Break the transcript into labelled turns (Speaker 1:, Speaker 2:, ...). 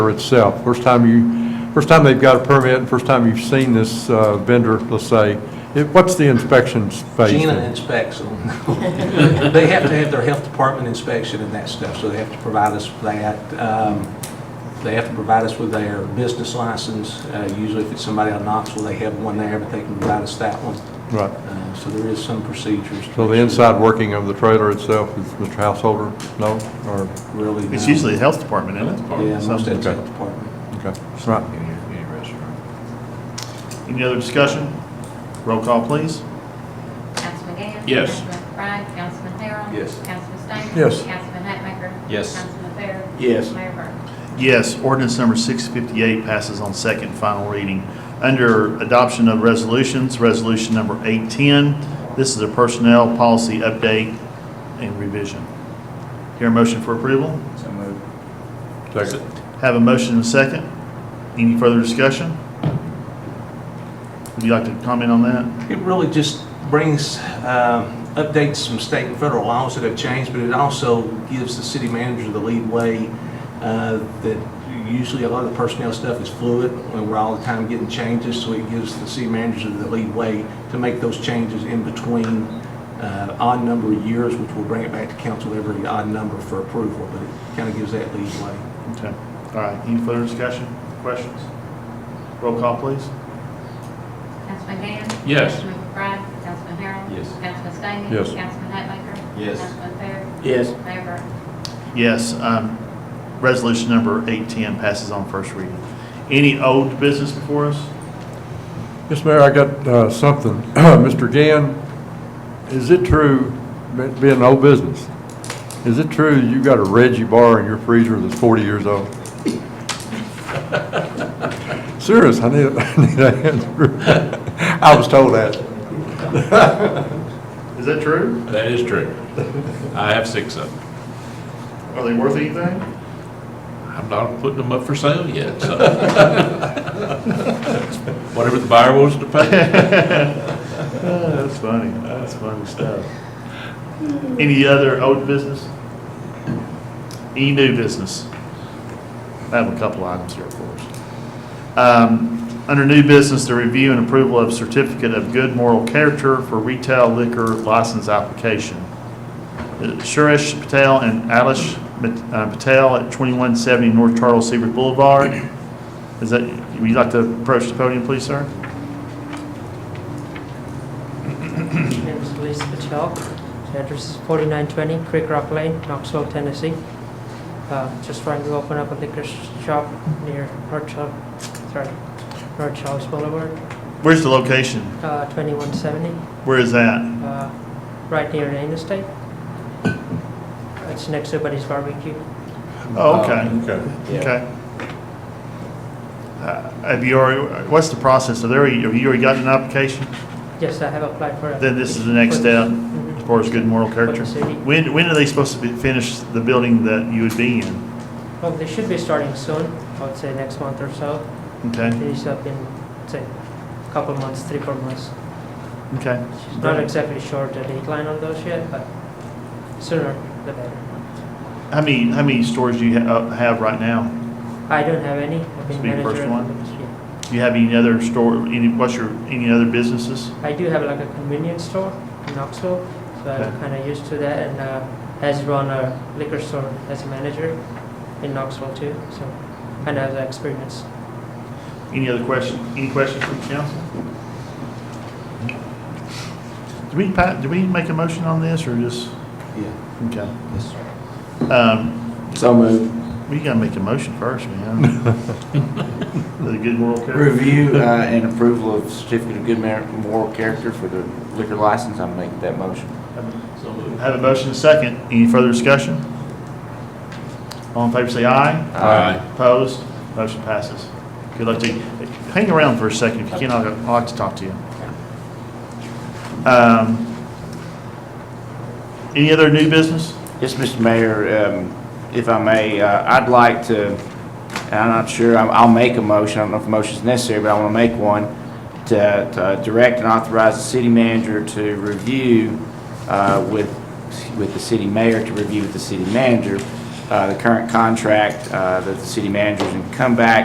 Speaker 1: itself. First time you, first time they've got a permit, and first time you've seen this uh, vendor, let's say, it- what's the inspections phase?
Speaker 2: Gina inspects them. They have to have their health department inspection and that stuff, so they have to provide us with that. Um, They have to provide us with their business license. Uh, Usually if it's somebody out of Knoxville, they have one there, but they can provide us that one.
Speaker 1: Right.
Speaker 2: Uh, So there is some procedures. to
Speaker 1: So the
Speaker 2: make sure
Speaker 1: inside working of the trailer itself is Mr. Householder? No? Or,
Speaker 2: Really.
Speaker 3: It's
Speaker 2: no.
Speaker 3: usually the health department, isn't it?
Speaker 2: Yeah, most of it's
Speaker 1: Okay.
Speaker 2: health department.
Speaker 1: okay, right.
Speaker 4: Any, any restaurant.
Speaker 3: Any other discussion? Roll call, please.
Speaker 5: Councilman Gann?
Speaker 4: Yes.
Speaker 5: Councilman McBride? Councilman Harrell?
Speaker 4: Yes.
Speaker 5: Councilman Stanger?
Speaker 1: Yes.
Speaker 5: Councilman Hatmaker?
Speaker 4: Yes.
Speaker 5: Councilman Fair?
Speaker 4: Yes.
Speaker 5: Mayor Burton?
Speaker 3: Yes, ordinance number 658 passes on second and final reading. Under adoption of resolutions, resolution number 810, this is a personnel policy update and revision. Hear a motion for approval?
Speaker 4: So moved.
Speaker 1: Second.
Speaker 3: Have a motion and a second. Any further discussion? Would you like to comment on that?
Speaker 2: It really just brings, um, updates some state and federal laws that have changed, but it also gives the city manager the lead way uh, that usually a lot of the personnel stuff is fluid, and we're all the time getting changes, so it gives the city manager the lead way to make those changes in between uh, odd number of years, which will bring it back to council every odd number for approval, but it kind of gives that lead way.
Speaker 3: Okay, all right. Any further discussion, questions? Roll call, please.
Speaker 5: Councilman Gann?
Speaker 4: Yes.
Speaker 5: Councilman McBride? Councilman Harrell?
Speaker 4: Yes.
Speaker 5: Councilman Stanger?
Speaker 1: Yes.
Speaker 5: Councilman Hatmaker?
Speaker 4: Yes.
Speaker 5: Councilman Fair?
Speaker 4: Yes.
Speaker 5: Mayor Burton?
Speaker 3: Yes, um, resolution number 810 passes on first reading. Any old business before us?
Speaker 1: Yes, Mayor, I got uh, something. Mr. Gann, is it true, be- being an old business, is it true you got a Reggie bar in your freezer that's 40 years old? Serious, I need, a- I need an answer. I was told that.
Speaker 3: Is that true?
Speaker 4: That is true. I have six of them.
Speaker 3: Are they worth anything?
Speaker 4: I'm not putting them up for sale yet, so. Whatever the buyer wants to pay.
Speaker 3: Uh, That's funny, that's funny stuff. Any other old business? Any new business? I have a couple items here, of course. Um, Under new business, the review and approval of certificate of good moral character for retail liquor license application. Uh, Suresh Patel and Alish Mit- uh, Patel at 2170 North Charles Seaver Boulevard. Is that, would you like to approach the podium, please, sir?
Speaker 6: name is Elise Patel. The address is 4920 Creek Rock Lane, Knoxville, Tennessee. Uh, Just trying to open up a liquor shop near North Charles, sorry, North Charles Boulevard,
Speaker 3: Where's the location?
Speaker 6: uh, 2170,
Speaker 3: Where is that?
Speaker 6: uh, right near Nain Estate. It's next to Buddy's Barbecue.
Speaker 3: Oh, okay,
Speaker 1: Okay.
Speaker 3: okay. Uh, Have you already, what's the process? Have they already- have you already gotten an application?
Speaker 6: Yes, I have applied for it.
Speaker 3: Then this is the next step as far as good moral character?
Speaker 6: city.
Speaker 3: When, when are they supposed to be- finish the building that you would be in?
Speaker 6: Well, they should be starting soon, I would say next month or so.
Speaker 3: Okay,
Speaker 6: Finish up in, say, a couple months, three, four months.
Speaker 3: okay.
Speaker 6: She's not exactly sure the decline on those yet, but sooner the better.
Speaker 3: How many, how many stores do you ha- uh, have right now?
Speaker 6: I don't have any. I've
Speaker 3: This
Speaker 6: been
Speaker 3: be your
Speaker 6: manager.
Speaker 3: first
Speaker 6: at
Speaker 3: one?
Speaker 6: the industry.
Speaker 3: Do you have any other store, any, what's your, any other businesses?
Speaker 6: I do have like a convenience store in Knoxville, so
Speaker 3: Okay.
Speaker 6: I'm kind of used to that and uh, has run a liquor store as a manager in Knoxville too, so kind of have the experience.
Speaker 3: Any other question, any questions from council? Hmm? Do we, pa- do we make a motion on this or just?
Speaker 2: Yeah.
Speaker 3: Okay.
Speaker 2: Yes, sir.
Speaker 3: Um,
Speaker 7: So moved.
Speaker 3: we gotta make a motion first, man. The good moral character.
Speaker 7: Review uh, and approval of certificate of good mer- moral character for the liquor license. I'm making that motion.
Speaker 4: So moved.
Speaker 3: Have a motion and a second. Any further discussion? All in favor, say aye.
Speaker 4: Aye.
Speaker 3: Opposed? Motion passes. Good luck to you. Hang around for a second if you can. I'd I'd like to talk to you. Um, any other new business?
Speaker 7: Yes, Mr. Mayor, um, if I may, uh, I'd like to, and I'm not sure, I'll I'll make a motion, I don't know if a motion's necessary, but I want to make one, to to direct and authorize the city manager to review uh, with, with the city mayor, to review with the city manager, uh, the current contract uh, that the city manager's in come back